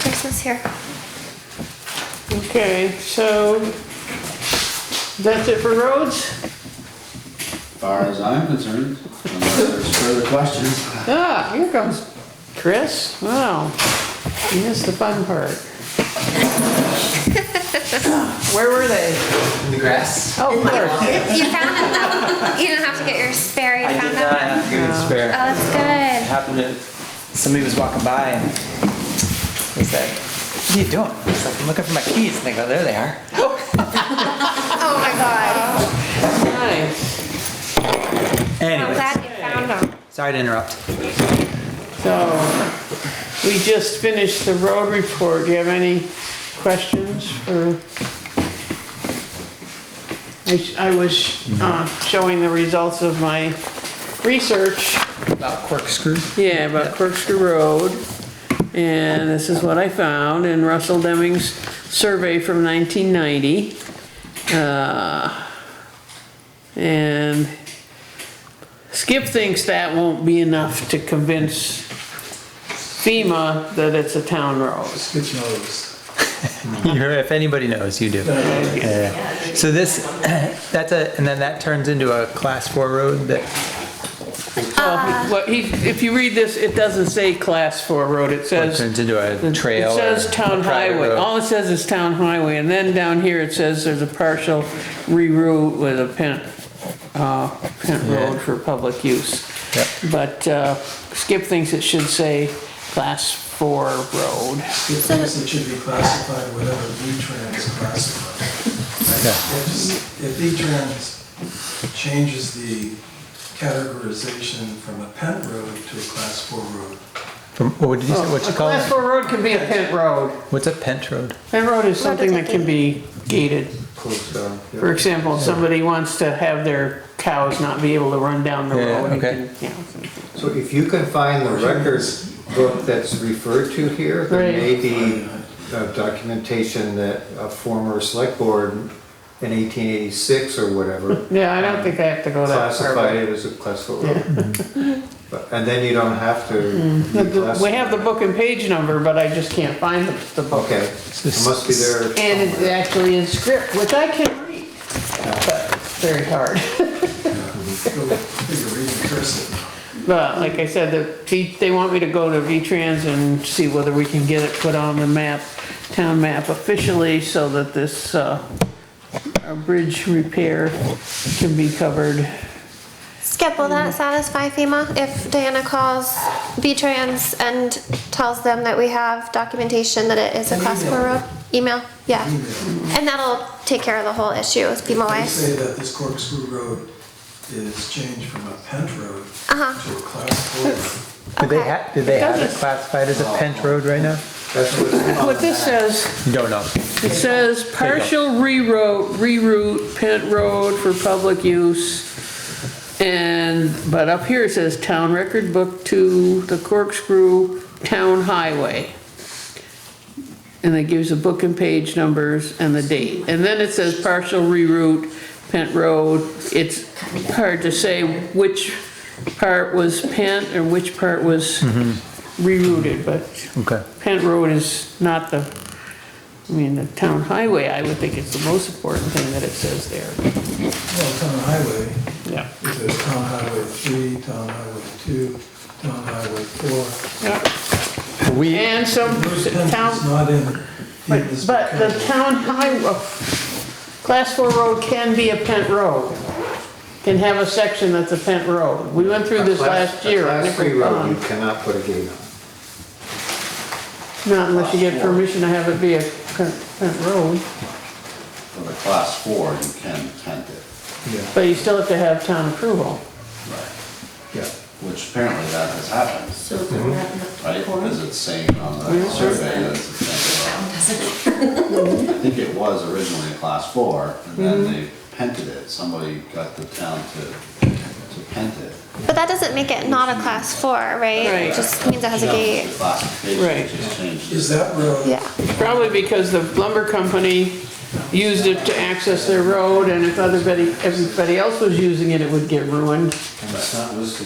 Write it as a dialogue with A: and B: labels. A: business Oh, here.
B: Okay, so that's it for roads?
C: far as I'm concerned, unless there's further questions.
B: Ah, here comes Chris. Wow, you missed the fun part. Where were they?
D: In the grass?
B: Oh, there.
A: You found it though. You didn't have to get your spare. You
D: I
A: found
D: did not
A: that
D: have to get a
A: one. Oh,
D: spare.
A: that's
D: It
A: good.
D: happened to, somebody was walking by and they said, what are you doing? I was like, I'm looking for my keys. And they go, there they are.
A: Oh my god.
B: Nice.
A: I'm
D: Anyways,
A: glad you found them.
D: sorry to interrupt.
B: So, we just finished the road report. Do you have any questions for? I s- I was uh,
D: Mm-hmm.
B: showing the results of my research.
D: About corkscrew?
B: Yeah, about Corkscrew Road. And this is what I found in Russell Deming's survey from 1990. Uh, And Skip thinks that won't be enough to convince FEMA that it's a town road.
E: Switch knows?
D: If anybody knows, you do. Yeah. So this, that's a, and then that turns into a class four road that,
B: Well, what he, if you read this, it doesn't say class four road, it says.
D: turns into a trail.
B: It
D: or
B: says town
D: a private
B: highway,
D: road.
B: all it says is town highway, and then down here it says there's a partial reroute with a pent, uh, pent road for public use.
D: Yep.
B: But, uh, Skip thinks it should say class four road.
E: Skip thinks it should be classified whatever V-Trans classified. If- If V-Trans changes the categorization from a pent road to a class four road,
D: From, what did you say, what you call
B: Class
D: it?
B: four road can be a pent road.
D: What's a pent road?
B: Pent road is something
A: Road is
B: that can be gated.
E: close down.
B: For example, if somebody wants to have their cows not be able to run down the
D: Yeah, yeah,
B: road. it
D: okay.
B: can- yeah.
F: So if you can find the records book that's referred to here, there may
B: Right.
F: be uh, documentation that a former select board in 1886 or whatever
B: Yeah, I don't think I have to go that far.
F: classified it as a class four road. But- And then you don't have to. reclassify.
B: We have Mm. the book and page number, but I just can't find the- the book.
F: Okay, it must be there.
B: And it
F: somewhere.
B: actually is script, which I can read, but it's very hard.
E: Go figure, read the cursive.
B: But like I said, the, V- they want me to go to V-Trans and see whether we can get it put on the map, town map officially, so that this, uh, uh, bridge repair can be covered.
A: Skip, will that satisfy FEMA if Diana calls B-Trans and tells them that we have documentation that it is a
E: An
A: class four
E: email.
A: road? Email, yeah.
E: Email.
A: And that'll take care of the whole issue with FEMA
E: They
A: wise.
E: say that this corkscrew road is changed from a pent road
A: Uh-huh.
E: to a class four road.
D: Did they
A: Okay.
D: have, did they have it Oh.
B: doesn't-
D: classified as a pent road right now?
F: That's what's on
B: What this says
D: You don't know.
B: It says partial reroute, reroute Pent Road for public use. And, but up here it says town record book to the corkscrew town highway. And it gives the book and page numbers and the date. And then it says partial reroute Pent Road. It's hard to say which part was Pent and which part was rerouted, but
D: Okay.
B: Pent Road is not the, I mean, the town highway, I would think it's the most important thing that it says there.
E: Well, town highway,
B: Yeah.
E: It says town highway three, town highway two, town highway four.
D: We,
B: And some
E: Bruce Pence is
B: Hmm. town,
E: not in.
B: but
E: he is
B: but the
E: because-
B: town highway, class four road can be a Pent Road. Can have a section that's a Pent Road. We went through
F: a
B: this
F: class-
B: last year.
F: A
B: on
F: class three
B: Nickel
F: road, you
B: Pond.
F: cannot put a gate on.
B: Not unless you get permission to have it be a Pent Pent Road,
C: For the class four, you can tent it,
B: but you still have to have town approval.
F: Yeah.
C: which apparently that has happened,
G: So they're not in
C: right?
G: the corn?
C: Because it's saying on the survey that it's a tent. I think it was originally a class four, and then they pented it, somebody got the town to, to pent it.
A: But that doesn't make it not a class four, right?
B: Right.
A: It just means it has a
C: The
A: gate.
B: Right.
C: Classification just changed.
E: Is that road?
A: Yeah.
B: Probably because the lumber company used it to access their road, and if everybody, everybody else was using it, it would get ruined.
F: And it's not listed